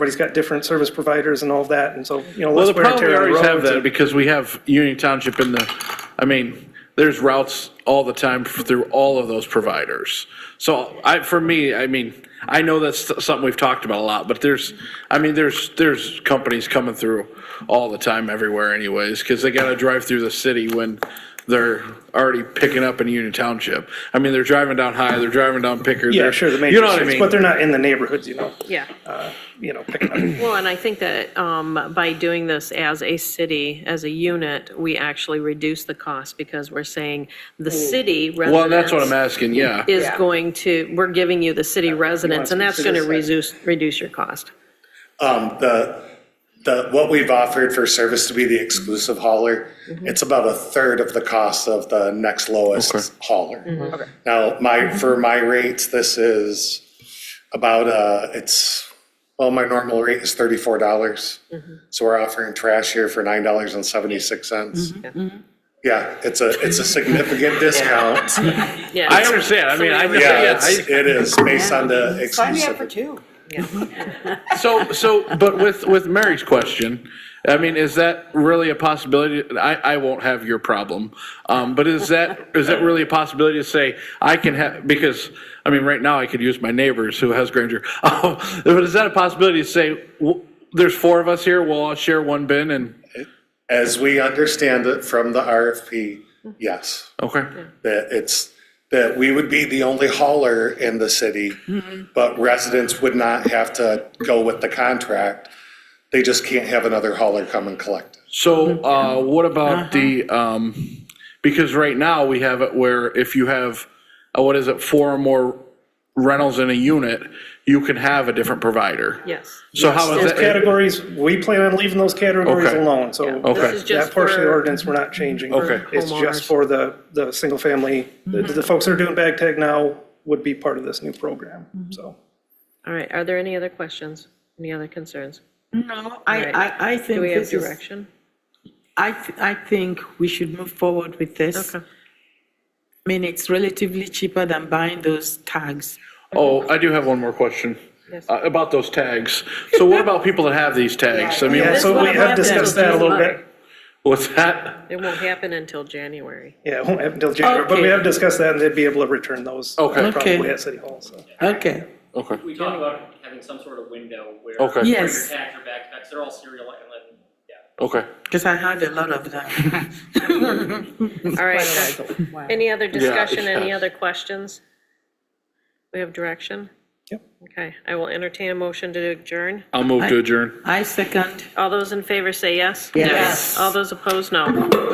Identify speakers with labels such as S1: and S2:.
S1: everybody's got different service providers and all of that, and so, you know,
S2: Well,
S1: less
S2: the
S1: wear and
S2: problem, we
S1: tear on
S2: always
S1: the
S2: have
S1: roads.
S2: that,
S1: and-
S2: because we have Union Township in the, I mean, there's routes all the time through all of those providers. So I, for me, I mean, I know that's something we've talked about a lot, but there's, I mean, there's, there's companies coming through all the time everywhere anyways, because they gotta drive through the city when they're already picking up in Union Township. I mean, they're driving down High, they're driving down Pickard.
S1: Yeah,
S2: they're-
S1: sure, the main
S2: You know what I
S1: districts, but they're
S2: mean?
S1: not in the neighborhoods, you know,
S3: Yeah.
S1: you know, picking up.
S3: Well, and I think that um, by doing this as a city, as a unit, we actually reduce the cost because we're saying the city residents.
S2: Well, that's what I'm asking, yeah.
S3: Is going to, we're giving you the city residents, and that's going to reduce, reduce your cost.
S4: Um, the, the, what we've offered for service to be the exclusive hauler, it's about a third of the cost of the next lowest hauler. Now, my, for my rates, this is about, uh, it's, well, my normal rate is thirty-four dollars. So we're offering trash here for nine dollars and seventy-six cents. Yeah, it's a, it's a significant discount.
S3: Yeah.
S2: I understand, I mean, I,
S4: Yeah,
S2: yeah,
S4: it's,
S2: I,
S4: it is based on the
S5: Sign me up for
S4: exclusive.
S5: two.
S2: So, so, but with, with Mary's question, I mean, is that really a possibility? I, I won't have your problem. Um, but is that, is that really a possibility to say, I can have, because, I mean, right now I could use my neighbors who has Granger. Um, But is that a possibility to say, w- there's four of us here, we'll all share one bin and,
S4: As we understand it from the RFP, yes.
S2: okay?
S4: that it's, that we would be the only hauler in the city, but residents would not have to go with the contract. They just can't have another hauler come and collect. it.
S2: So, uh, what
S3: Uh-huh.
S2: about the, um, because right now we have it where if you have, uh, what is it, four or more rentals in a unit, you can have a different provider.
S3: Yes.
S2: So how is
S1: Those
S2: that?
S1: categories, we plan on leaving those categories
S2: Okay.
S1: alone, so.
S3: Yeah. This
S2: Okay.
S3: is
S1: That
S3: just
S1: portion of the
S3: for-
S1: ordinance, we're not changing.
S2: Okay.
S1: It's just
S3: Homeowners.
S1: for the, the single family, the, the folks that are doing bag tag now would be part of this new program, so.
S3: All right, are there any other questions? Any other concerns?
S5: No, I,
S3: Right.
S5: I, I think
S3: Do we have
S5: this is,
S3: direction?
S5: I, th- I think we should move forward with this. I
S3: Okay.
S5: mean, it's relatively cheaper than buying those tags.
S2: Oh, I do have one more question
S3: Yes.
S2: uh, about those tags. So what about people that have these tags? I mean,
S1: Yeah,
S5: this
S1: so
S5: one
S1: we
S5: I'm
S1: have
S5: glad that
S1: discussed that a little bit.
S2: what's that?
S3: It won't happen until January.
S1: Yeah, it won't happen until January, but we
S5: Okay.
S1: have discussed that and they'd be able to return those. uh,
S2: Okay.
S1: Probably
S5: Okay.
S1: at City Hall, so.
S5: Okay,
S2: Okay,
S6: We talked about having some sort of window where.
S2: Okay.
S6: where
S5: Yes.
S6: Your tags or backpacks, they're all serial and then, yeah.
S2: okay.
S5: because I have a lot of them.
S3: All right, any other discussion, any
S2: yeah.
S3: other questions? We have direction?
S1: Yep.
S3: Okay, I will entertain a motion to adjourn.
S2: I'll move to adjourn.
S5: I second.
S3: All those in favor say yes?
S5: Yes.
S3: All those opposed, no.